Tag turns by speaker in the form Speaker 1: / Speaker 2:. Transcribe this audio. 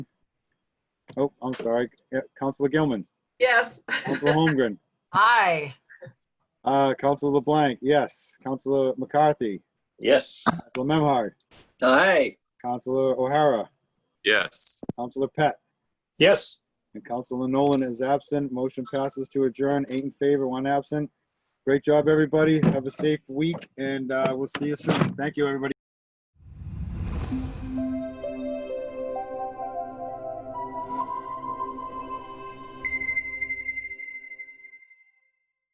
Speaker 1: Oh, I'm sorry. Yeah, Counselor Gilman,
Speaker 2: Yes.
Speaker 1: Counselor Holmgren,
Speaker 3: Aye.
Speaker 1: uh, Counselor LeBlanc, yes. Counselor McCarthy,
Speaker 4: Yes.
Speaker 1: Counselor Memhard,
Speaker 5: Aye.
Speaker 1: Counselor O'Hara,
Speaker 4: Yes.
Speaker 1: Counselor Pett,
Speaker 4: Yes.
Speaker 1: and Counselor Nolan is absent. Motion passes to adjourn, eight in favor, one absent. Great job, everybody. Have a safe week, and uh, we'll see you soon. Thank you, everybody.